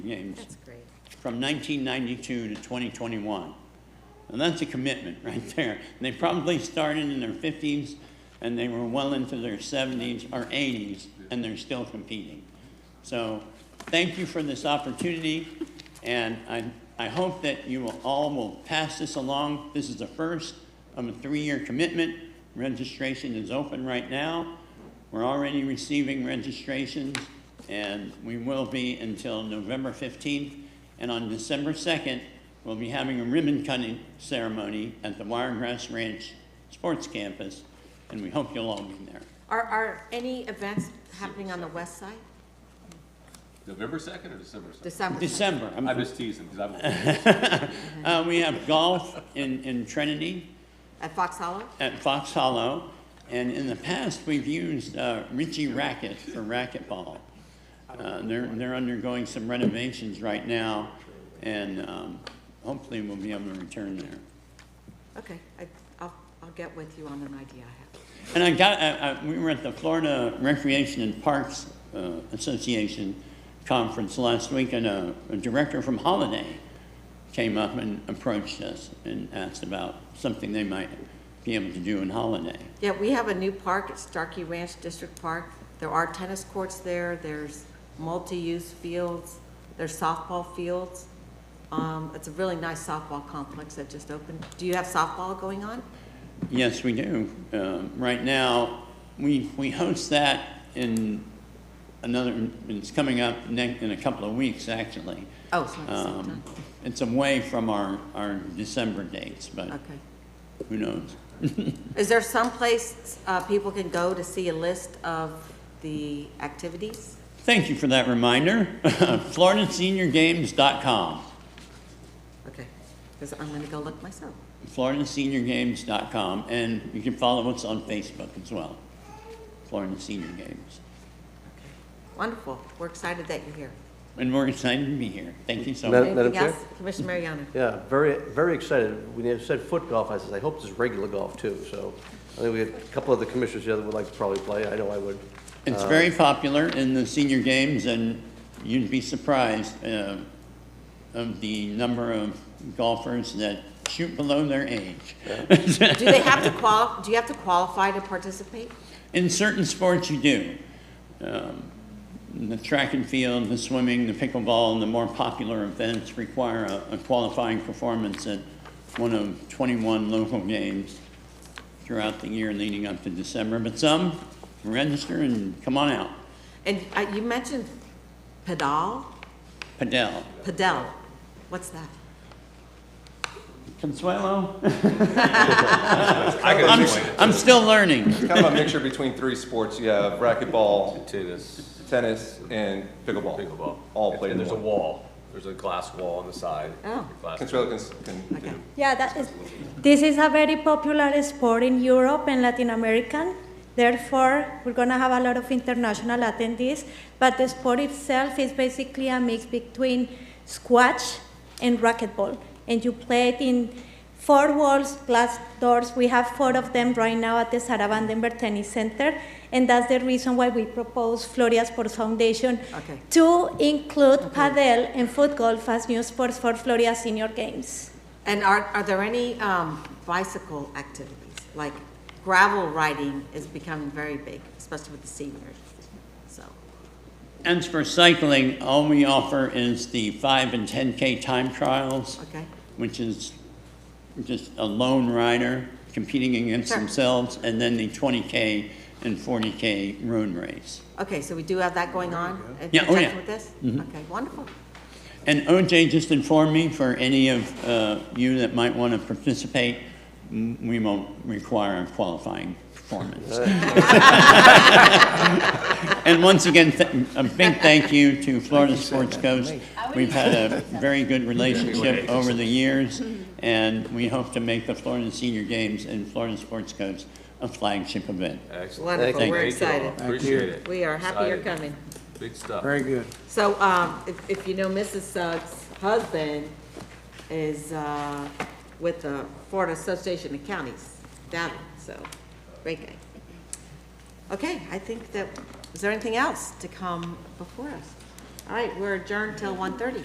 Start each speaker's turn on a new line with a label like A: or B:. A: games
B: That's great.
A: from 1992 to 2021. And that's a commitment right there. They probably started in their 50s and they were well into their 70s or 80s and they're still competing. So thank you for this opportunity and I, I hope that you will all will pass this along. This is the first of a three-year commitment. Registration is open right now. We're already receiving registrations, and we will be until November 15th. And on December 2nd, we'll be having a ribbon cutting ceremony at the Wiregrass Ranch Sports Campus, and we hope you'll all be there.
B: Are, are any events happening on the west side?
C: November second or December second?
B: December?
A: December, I'm-
C: I'm just teasing, because I'm,
A: uh, we have golf in, in Trinity
B: At Fox Hollow?
A: at Fox Hollow, and in the past, we've used uh, Ritchie Racket for racquetball. Uh, They're, they're undergoing some renovations right now, and um, hopefully we'll be able to return there.
B: Okay, I, I'll, I'll get with you on an idea I have.
A: And I got, I, I, we were at the Florida Recreation and Parks uh, Association conference last week, and a, a director from Holiday came up and approached us and asked about something they might be able to do in Holiday.
B: Yeah, we have a new park, it's Starkey Ranch District Park. There are tennis courts there, there's multi-use fields, there's softball fields. Um, it's a really nice softball complex that just opened. Do you have softball going on?
A: Yes, we do. Um, Right now, we, we host that in another, it's coming up ne- in a couple of weeks, actually.
B: Oh, it's not the same
A: Um,
B: time.
A: It's away from our, our December dates, but
B: Okay.
A: who knows?
B: Is there some place uh, people can go to see a list of the activities?
A: Thank you for that reminder. FloridaSeniorGames.com.
B: Okay, because I'm going to go look myself.
A: FloridaSeniorGames.com. And you can follow us on Facebook as well. Florida Senior Games.
B: Wonderful, we're excited that you're here.
A: And we're excited to be here. Thank you so
D: Madam-
A: much.
B: Anything
D: Chair?
B: else? Commissioner Mariano?
D: Yeah, very, very excited. When you said foot golf, I said, I hope it's regular golf too, so. I think we had a couple of the commissioners here that would like to probably play, I know I would.
A: It's very popular in the senior games, and you'd be surprised uh, of the number of golfers that shoot below their age.
B: Do they have to qual, do you have to qualify to participate?
A: In certain sports, you do. Um, The track and field, the swimming, the pickleball, and the more popular events require a a qualifying performance at one of 21 local games throughout the year leading up to December. But some register and come on out.
B: And uh, you mentioned pedal,
A: Padel.
B: pedal, what's that?
A: Consuelo?
C: I can
A: I'm,
C: explain.
A: I'm still learning.
E: Kind of a mixture between three sports. You have racquetball,
C: Tennis,
E: tennis, and pickleball.
C: pickleball.
E: All played
C: And
E: in
C: there's a
E: one.
C: wall, there's a glass wall on the side.
B: Oh.
C: Glass-
E: Consuelo can, s- can
B: Okay.
E: do.
F: Yeah, that is, this is a very popular sport in Europe and Latin American. Therefore, we're going to have a lot of international attendees. But the sport itself is basically a mix between squash and racquetball. And you play it in four walls, glass doors. We have four of them right now at the Sarah Vandenberg Tennis Center. And that's the reason why we propose Florida Sports Foundation
B: Okay.
F: to include padel and foot golf as new sports for Florida Senior Games.
B: And are, are there any um, bicycle activities? Like gravel riding is becoming very big, especially with the seniors, so.
A: As for cycling, all we offer is the 5 and 10K time trials.
B: Okay.
A: Which is just a lone rider competing against
B: Sure.
A: themselves, and then the 20K and 40K road race.
B: Okay, so we do have that going on? in
A: Yeah, oh,
B: conjunction
A: yeah.
B: With this? Okay, wonderful.
A: And OJ just informed me for any of uh, you that might want to participate, m- we won't require a qualifying performance. And once again, th- a big thank you to Florida Sports Coast. We've had a very good relationship over the years, and we hope to make the Florida Senior Games and Florida Sports Coast a flagship event.
C: Excellent.
B: Wonderful,
A: Thank
B: we're
C: Thank you all.
B: excited.
C: Appreciate it.
B: We are happy you're
C: Excited.
B: coming.
C: Big stuff.
G: Very good.
B: So, um, if, if you know Mrs. Suggs' husband is, uh, with the Florida Association of Counties down, so, great guy. Okay, I think that, is there anything else to come before us? All right, we're adjourned till one thirty.